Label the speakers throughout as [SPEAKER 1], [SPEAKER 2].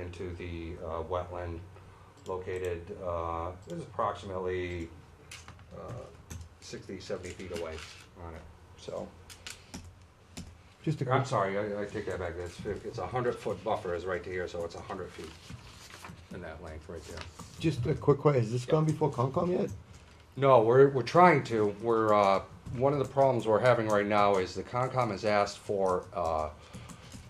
[SPEAKER 1] into the uh, wetland located, uh, this is approximately uh, 60, 70 feet away on it, so.
[SPEAKER 2] Just a
[SPEAKER 1] I'm
[SPEAKER 2] quick,
[SPEAKER 1] sorry, I I take that back, it's, it's a 100-foot buffer is right to here, so it's 100 feet in that length right there.
[SPEAKER 2] just a quick question, has this gone before Concom yet?
[SPEAKER 1] No, we're, we're trying to. We're, uh, one of the problems we're having right now is the Concom has asked for, uh,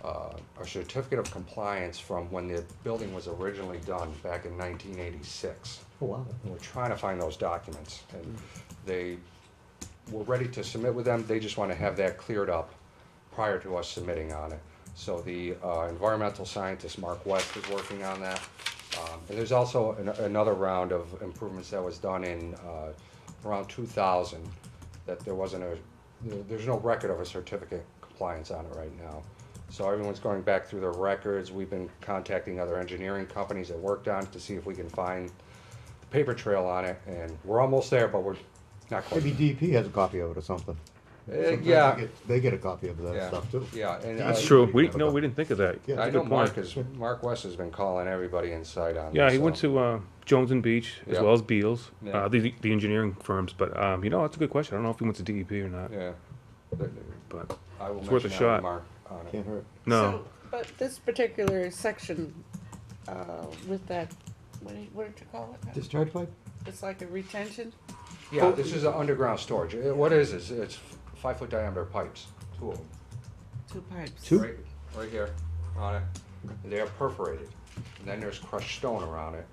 [SPEAKER 1] uh, a certificate of compliance from when the building was originally done back in nineteen eighty-six.
[SPEAKER 2] Oh, wow.
[SPEAKER 1] And we're trying to find those documents, and they, we're ready to submit with them, they just wanna have that cleared up prior to us submitting on it. So the, uh, environmental scientist, Mark West, is working on that. Um, and there's also an, another round of improvements that was done in, uh, around two thousand, that there wasn't a, there- there's no record of a certificate compliance on it right now. So everyone's going back through their records, we've been contacting other engineering companies that worked on it to see if we can find paper trail on it, and we're almost there, but we're not quite. Uh,
[SPEAKER 2] Maybe DEP has a copy of it or something. Sometimes they
[SPEAKER 1] yeah.
[SPEAKER 2] get- They get a copy of that
[SPEAKER 1] Yeah,
[SPEAKER 2] stuff too.
[SPEAKER 1] Yeah, and
[SPEAKER 3] That's
[SPEAKER 1] I-
[SPEAKER 3] true. We, no, we didn't think of that.
[SPEAKER 2] Yeah.
[SPEAKER 3] That's
[SPEAKER 1] I
[SPEAKER 3] a
[SPEAKER 1] know
[SPEAKER 3] good
[SPEAKER 1] Mark
[SPEAKER 3] point.
[SPEAKER 1] is Mark West has been calling everybody inside on.
[SPEAKER 3] Yeah,
[SPEAKER 1] this,
[SPEAKER 3] he went
[SPEAKER 1] so-
[SPEAKER 3] to, uh, Jones and Beach as
[SPEAKER 1] Yeah.
[SPEAKER 3] well as Beals,
[SPEAKER 1] Yeah.
[SPEAKER 3] uh, the, the engineering firms, but, um, you know, that's a good question. I don't know if he went to DEP or not,
[SPEAKER 1] Yeah, But
[SPEAKER 3] but,
[SPEAKER 1] I will
[SPEAKER 3] It's worth a
[SPEAKER 1] mention that
[SPEAKER 3] shot.
[SPEAKER 1] with Mark on it.
[SPEAKER 2] Can't hurt.
[SPEAKER 3] no.
[SPEAKER 4] So, But this particular section, uh, with that, what do you- what did you call it?
[SPEAKER 2] Discharge pipe?
[SPEAKER 4] It's like a retention?
[SPEAKER 1] Yeah, this is an underground storage. Uh, What is this? It's five foot diameter pipes, two of them.
[SPEAKER 4] Two pipes.
[SPEAKER 2] Two?
[SPEAKER 1] Right, right here on it. They're perforated. And then there's crushed stone around it.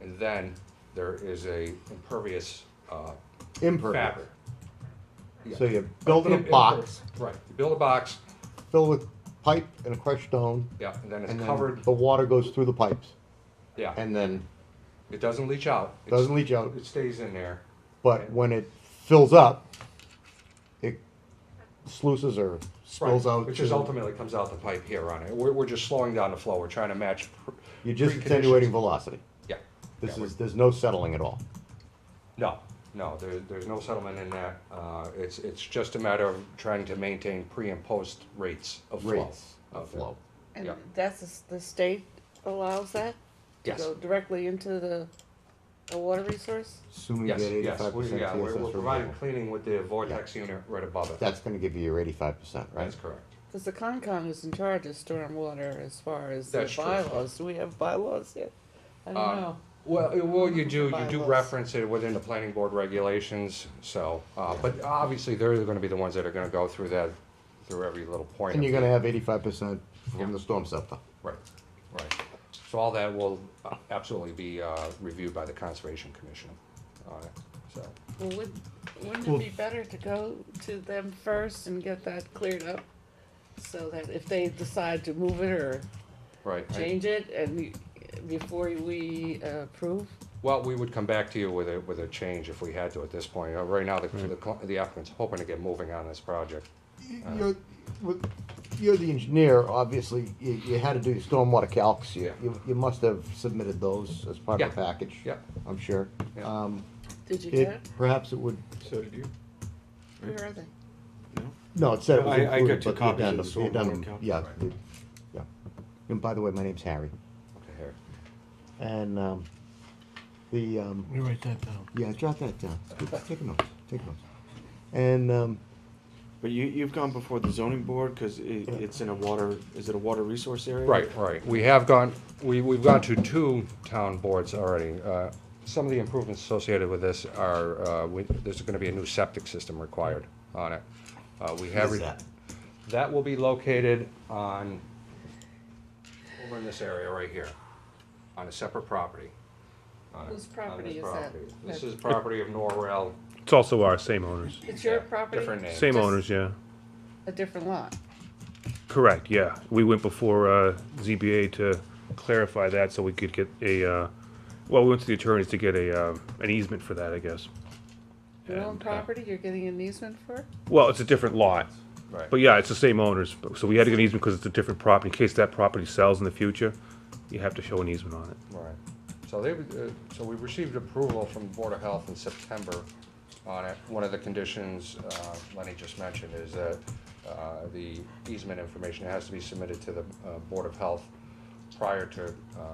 [SPEAKER 1] And then there is a impervious uh, fabric.
[SPEAKER 2] Impervious.
[SPEAKER 1] Yeah.
[SPEAKER 2] So you build in a
[SPEAKER 1] Im- imper-
[SPEAKER 2] box,
[SPEAKER 1] Right, you build a box,
[SPEAKER 2] fill with pipe and a crushed stone,
[SPEAKER 1] yeah, and then it's
[SPEAKER 2] and then
[SPEAKER 1] covered,
[SPEAKER 2] the water goes through the pipes,
[SPEAKER 1] yeah.
[SPEAKER 2] and then,
[SPEAKER 1] It doesn't leach out. It's-
[SPEAKER 2] Doesn't leach out.
[SPEAKER 1] It stays in there.
[SPEAKER 2] but when it fills up, it sluices or spills
[SPEAKER 1] Right,
[SPEAKER 2] out.
[SPEAKER 1] Which is
[SPEAKER 2] to-
[SPEAKER 1] ultimately comes out the pipe here on it. We're, we're just slowing down the flow. We're trying to match. pr-
[SPEAKER 2] You're just
[SPEAKER 1] preconditions.
[SPEAKER 2] attenuating velocity.
[SPEAKER 1] Yeah.
[SPEAKER 2] This
[SPEAKER 1] Yeah, we're-
[SPEAKER 2] is, there's no settling at all.
[SPEAKER 1] No, no, there, there's no settlement in that. Uh, it's, it's just a matter of trying to maintain pre and post rates of flow.
[SPEAKER 2] Rates of flow.
[SPEAKER 4] And
[SPEAKER 1] Yeah.
[SPEAKER 4] that's, the s- the state allows that?
[SPEAKER 1] Yes.
[SPEAKER 4] To go directly into the, a water resource?
[SPEAKER 2] Assuming you
[SPEAKER 1] Yes,
[SPEAKER 2] get
[SPEAKER 1] yes,
[SPEAKER 2] eighty-five
[SPEAKER 1] we,
[SPEAKER 2] percent
[SPEAKER 1] yeah, we're, we're
[SPEAKER 2] TSS
[SPEAKER 1] providing
[SPEAKER 2] removal.
[SPEAKER 1] cleaning with the vortex unit right above it.
[SPEAKER 2] That's gonna give you your eighty-five percent, right?
[SPEAKER 1] That's correct.
[SPEAKER 4] Cause the Concom is in charge of stormwater as far as the
[SPEAKER 1] That's true.
[SPEAKER 4] bylaws. Do we have bylaws yet? I don't
[SPEAKER 1] Um,
[SPEAKER 4] know.
[SPEAKER 1] Well, uh, well, you do, you do
[SPEAKER 4] Bylaws.
[SPEAKER 1] reference it within the planning board regulations, so, uh, but obviously, they're gonna be the ones that are gonna go through that, through every little point.
[SPEAKER 2] And
[SPEAKER 1] of
[SPEAKER 2] you're
[SPEAKER 1] it.
[SPEAKER 2] gonna have eighty-five percent
[SPEAKER 1] Yeah.
[SPEAKER 2] from the storm scepter.
[SPEAKER 1] Right, right. So all that will uh, absolutely be, uh, reviewed by the Conservation Commission on it, so.
[SPEAKER 4] Well, wouldn't, wouldn't
[SPEAKER 2] Well-
[SPEAKER 4] it be better to go to them first and get that cleared up? So that if they decide to move it or
[SPEAKER 1] Right. I-
[SPEAKER 4] change it and we- before we uh, approve?
[SPEAKER 1] Well, we would come back to you with a, with a change if we had to at this point. Uh, Right now, the, the cl- the applicant's hoping to get moving on this project.
[SPEAKER 2] You're, with- you're the engineer, obviously, you, you had to do your stormwater calcs, you,
[SPEAKER 1] Yeah.
[SPEAKER 2] you, you must have submitted those as part of the
[SPEAKER 1] Yeah.
[SPEAKER 2] package.
[SPEAKER 1] Yeah.
[SPEAKER 2] I'm sure.
[SPEAKER 1] Yeah.
[SPEAKER 2] Um,
[SPEAKER 4] Did you
[SPEAKER 2] it,
[SPEAKER 4] get it?
[SPEAKER 2] perhaps it would,
[SPEAKER 5] So did you?
[SPEAKER 4] Where are they?
[SPEAKER 2] no, it said it was
[SPEAKER 5] I- I got
[SPEAKER 2] included,
[SPEAKER 5] two
[SPEAKER 2] but the
[SPEAKER 5] copies of the
[SPEAKER 2] addendum, the
[SPEAKER 5] stormwater
[SPEAKER 2] addendum,
[SPEAKER 5] calc.
[SPEAKER 2] yeah,
[SPEAKER 5] Right.
[SPEAKER 2] the- yeah. And by the way, my name's Harry,
[SPEAKER 1] Okay, here.
[SPEAKER 2] and, um, the, um,
[SPEAKER 6] Let me write that down.
[SPEAKER 2] yeah, jot that down, take notes, take notes. And, um,
[SPEAKER 5] But you, you've gone before the zoning board, cause it, it's in a water, is it a water resource area?
[SPEAKER 1] Right, right. We have gone, we, we've gone to two town boards already. Uh, Some of the improvements associated with this are, uh, we- there's gonna be a new septic system required on it. Uh, We have.
[SPEAKER 2] Where's
[SPEAKER 1] re-
[SPEAKER 2] that?
[SPEAKER 1] That will be located on, over in this area right here, on a separate property. on it-
[SPEAKER 4] Whose
[SPEAKER 1] on this
[SPEAKER 4] property is that?
[SPEAKER 1] property. This is property of Norrell.
[SPEAKER 3] It's also our same owners.
[SPEAKER 4] It's your
[SPEAKER 1] Yeah,
[SPEAKER 4] property?
[SPEAKER 1] different name.
[SPEAKER 3] Same
[SPEAKER 4] Just
[SPEAKER 3] owners, yeah.
[SPEAKER 4] A different lot.
[SPEAKER 3] Correct, yeah. We went before, uh, ZBA to clarify that so we could get a, uh, well, we went to the attorneys to get a, uh, an easement for that, I guess.
[SPEAKER 4] Your own
[SPEAKER 3] And, uh,
[SPEAKER 4] property, you're getting an easement for?
[SPEAKER 3] Well, it's a different lot.
[SPEAKER 1] Right.
[SPEAKER 3] But yeah, it's the same owners, but- so we had to get an easement because it's a different property. In case that property sells in the future, you have to show an easement on it.
[SPEAKER 1] Right. So they, uh, so we received approval from Board of Health in September on it. One of the conditions uh, Lenny just mentioned is that uh, the easement information has to be submitted to the uh, Board of Health prior to, uh,